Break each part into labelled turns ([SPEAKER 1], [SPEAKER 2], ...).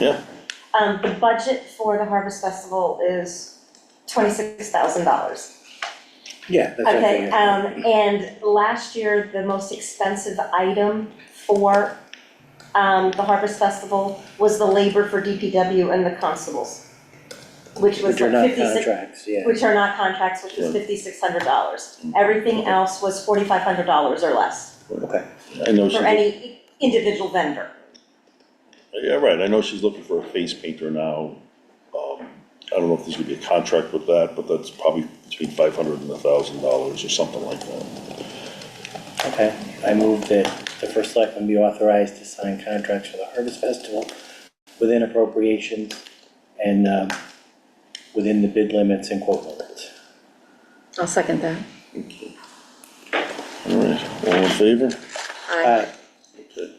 [SPEAKER 1] Yeah,
[SPEAKER 2] Um, the budget for the Harvest Festival is twenty-six thousand dollars.
[SPEAKER 3] Yeah, that's what
[SPEAKER 2] Okay,
[SPEAKER 3] I'm
[SPEAKER 2] um, and last year, the most expensive item for, um, the Harvest Festival was the labor for DPW and the constables, which was
[SPEAKER 3] Which are
[SPEAKER 2] like
[SPEAKER 3] not
[SPEAKER 2] fifty-six,
[SPEAKER 3] contracts, yeah.
[SPEAKER 2] which are not contracts, which was
[SPEAKER 1] Yeah.
[SPEAKER 2] fifty-six hundred dollars. Everything else was forty-five hundred dollars or less
[SPEAKER 3] Okay,
[SPEAKER 1] I know she's,
[SPEAKER 2] for any individual vendor.
[SPEAKER 1] yeah, right, I know she's looking for a face painter now. Um, I don't know if there's gonna be a contract with that, but that's probably between five hundred and a thousand dollars or something like that.
[SPEAKER 3] okay. I move that the first selectman be authorized to sign contracts for the Harvest Festival within appropriations and, um, within the bid limits and quote limits.
[SPEAKER 4] I'll second that.
[SPEAKER 1] All right, all in favor?
[SPEAKER 3] Aye.
[SPEAKER 1] Okay.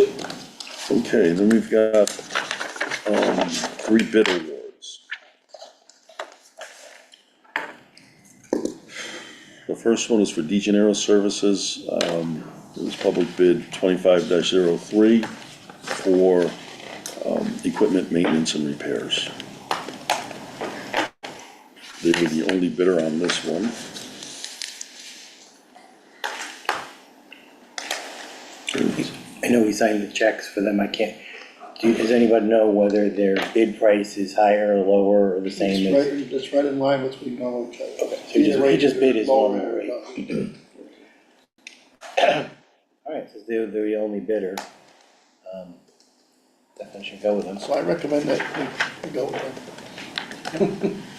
[SPEAKER 1] Okay, then we've got, um, three bid awards. The first one is for De Janeiro Services, um, it was public bid twenty-five 3 for, um, equipment maintenance and repairs. They were the only bidder on this one.
[SPEAKER 3] I know we signed the checks for them, I can't, do, does anybody know whether their bid price is higher or lower or the same
[SPEAKER 5] It's
[SPEAKER 3] as?
[SPEAKER 5] right, that's right in line with what we normally charge.
[SPEAKER 3] Okay, so he just- he just bid his normal rate.
[SPEAKER 5] uh,
[SPEAKER 3] Alright, so they're, they're the only bidder. Um, Definitely should go with them.
[SPEAKER 5] So I recommend that we go with that.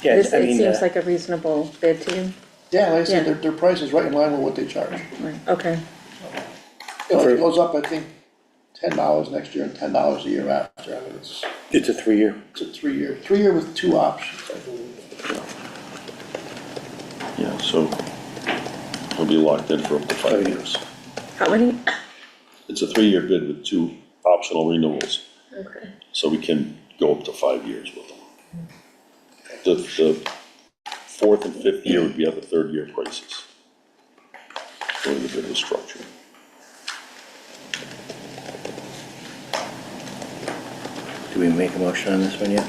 [SPEAKER 3] Yeah,
[SPEAKER 4] This,
[SPEAKER 3] I
[SPEAKER 4] it
[SPEAKER 3] mean,
[SPEAKER 4] seems
[SPEAKER 3] uh,
[SPEAKER 4] like a reasonable bid to you,
[SPEAKER 5] Yeah, like I said,
[SPEAKER 4] Yeah.
[SPEAKER 5] their, their price is right in line with what they charge.
[SPEAKER 4] right, okay,
[SPEAKER 5] You know,
[SPEAKER 3] For-
[SPEAKER 5] it goes up, I think, ten dollars next year and ten dollars a year after. I mean, it's,
[SPEAKER 3] it's a three-year
[SPEAKER 5] it's a three-year, three-year with two options, I believe.
[SPEAKER 1] Yeah, so it'll be locked in for up to five years.
[SPEAKER 4] how many?
[SPEAKER 1] It's a three-year bid with two optional renewals,
[SPEAKER 4] Okay.
[SPEAKER 1] so we can go up to five years with them. The, the fourth and fifth year would be at the third-year prices. The way the bid was structured.
[SPEAKER 3] Do we make a motion on this one yet?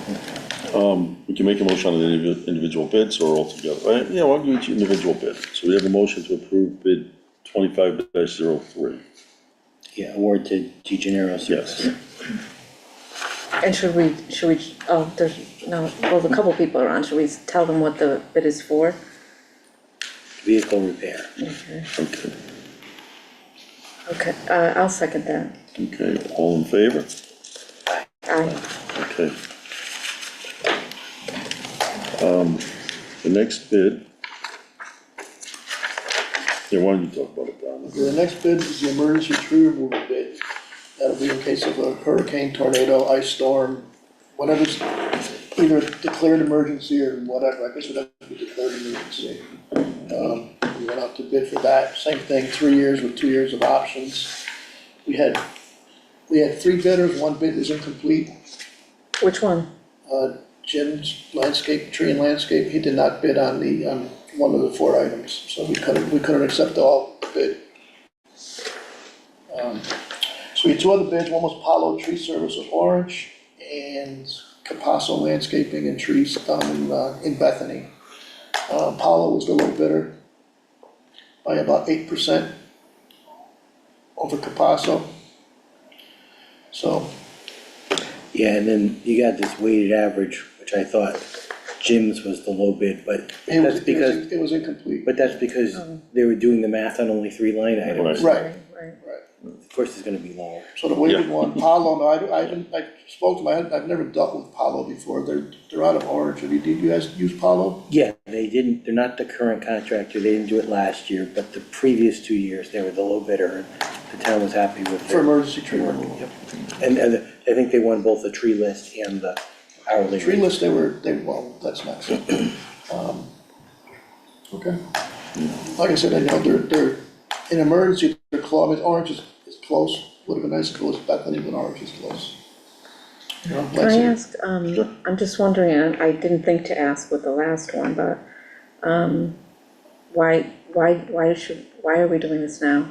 [SPEAKER 1] We can make a motion on the indivi- individual bids or altogether, right? Yeah, I'll give each individual bid. So we have a motion to approve bid twenty-five 3
[SPEAKER 3] Yeah, award to De Janeiro
[SPEAKER 1] Yes.
[SPEAKER 3] Services.
[SPEAKER 4] And should we, should we, oh, there's, no, well, a couple people are on, should we tell them what the bid is for?
[SPEAKER 3] Vehicle repair.
[SPEAKER 1] Okay,
[SPEAKER 4] Okay, uh, I'll second that,
[SPEAKER 1] okay, all in favor?
[SPEAKER 4] aye,
[SPEAKER 1] Okay. Um, Um, the next bid. Yeah, why don't you talk about it, Donna?
[SPEAKER 5] The next bid is the emergency tree removal bid. That'll be in case of a hurricane, tornado, ice storm, whatever's either declared emergency or whatever, I guess it would have to be declared emergency. Um, we went out to bid for that, same thing, three years with two years of options. We had, we had three bidders, one bid is incomplete.
[SPEAKER 4] which one?
[SPEAKER 5] Uh, Jim's landscape, tree and landscape, he did not bid on the, on one of the four items, so we couldn't, we couldn't accept all the bid. Um, So we had two other bids, one was Palo Tree Service of Orange and Capasso Landscaping and Trees down in, uh, in Bethany. Uh, Palo was the low bidder by about eight percent over Capasso. So
[SPEAKER 3] Yeah, and then you got this weighted average, which I thought Jim's was the low bid, but
[SPEAKER 5] it
[SPEAKER 3] that's
[SPEAKER 5] was, it was,
[SPEAKER 3] because,
[SPEAKER 5] it was incomplete.
[SPEAKER 3] but that's because they were doing the math on only three line items.
[SPEAKER 1] Right.
[SPEAKER 5] Right,
[SPEAKER 4] Right,
[SPEAKER 5] right.
[SPEAKER 3] Of course, it's gonna be lower.
[SPEAKER 5] So the weighted
[SPEAKER 1] Yeah.
[SPEAKER 5] one, Palo, no, I, I didn't, I spoke to my, I've never dealt with Palo before, they're, they're out of Orange, have you, did you guys use Palo?
[SPEAKER 3] Yeah, they didn't, they're not the current contractor, they didn't do it last year, but the previous two years, they were the low bidder. The town was happy with
[SPEAKER 5] For
[SPEAKER 3] their
[SPEAKER 5] emergency tree
[SPEAKER 3] work.
[SPEAKER 5] removal?
[SPEAKER 3] Yep. And, and I think they won both the tree list and the hourly
[SPEAKER 5] Tree
[SPEAKER 3] rate.
[SPEAKER 5] list, they were, they, well, that's next. Um, Okay. Like I said, I know, they're, they're, in emergency, they're close, I mean, Orange is, is close, would have been nice if it was Bethany, but Orange is close. You know,
[SPEAKER 4] Can
[SPEAKER 5] like
[SPEAKER 4] I
[SPEAKER 5] said,
[SPEAKER 4] ask,
[SPEAKER 1] Sure.
[SPEAKER 4] um, I'm just wondering, I I didn't think to ask with the last one, but, um, why, why, why should, why are we doing this now?